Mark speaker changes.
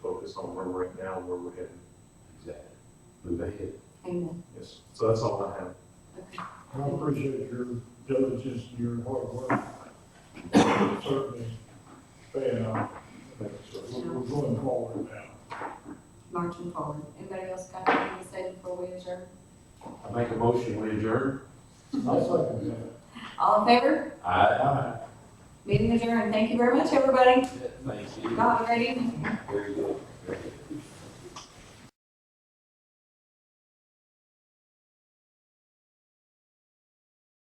Speaker 1: focus on where we're at now, and where we're headed.
Speaker 2: Exactly. Move ahead.
Speaker 3: Amen.
Speaker 1: Yes, so that's all I have.
Speaker 3: Okay.
Speaker 4: I appreciate your diligence and your hard work. Certainly, paying off. We're we're going forward now.
Speaker 3: Marching forward. Anybody else got anything to say before we adjourn?
Speaker 2: I make a motion, we adjourn.
Speaker 4: I second that.
Speaker 3: All in favor?
Speaker 2: Aye.
Speaker 3: Meeting adjourned. Thank you very much, everybody.
Speaker 2: Thank you.
Speaker 3: Bye, ready?
Speaker 2: Very good.